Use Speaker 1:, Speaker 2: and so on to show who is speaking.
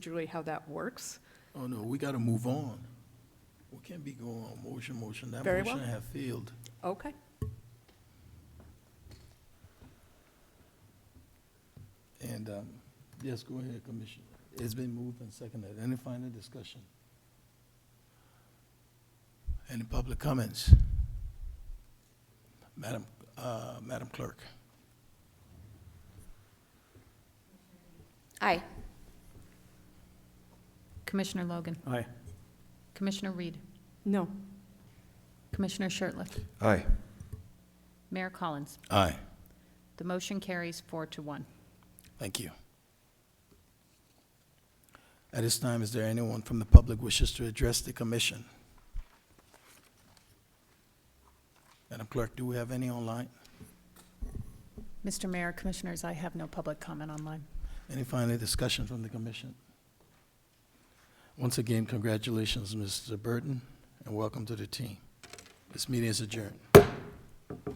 Speaker 1: procedurally how that works.
Speaker 2: Oh, no, we gotta move on. We can't be going on motion, motion. That
Speaker 1: Very
Speaker 2: motion
Speaker 1: well.
Speaker 2: have failed.
Speaker 1: Okay,
Speaker 2: And, um, yes, go ahead, Commissioner. It's been moved and seconded. Any final discussion? Any public comments? Madam, uh, Madam Clerk?
Speaker 3: Aye.
Speaker 4: Commissioner Logan.
Speaker 2: Aye.
Speaker 4: Commissioner Reed.
Speaker 1: no,
Speaker 4: Commissioner Shertliff.
Speaker 5: Aye.
Speaker 4: Mayor Collins.
Speaker 2: Aye.
Speaker 4: The motion carries four to one.
Speaker 2: Thank you. At this time, is there anyone from the public wishes to address the commission? Madam Clerk, do we have any online?
Speaker 4: Mr. Mayor, Commissioners, I have no public comment online.
Speaker 2: Any final discussion from the commission? Once again, congratulations, Mr. Burton, and welcome to the team. This meeting is adjourned.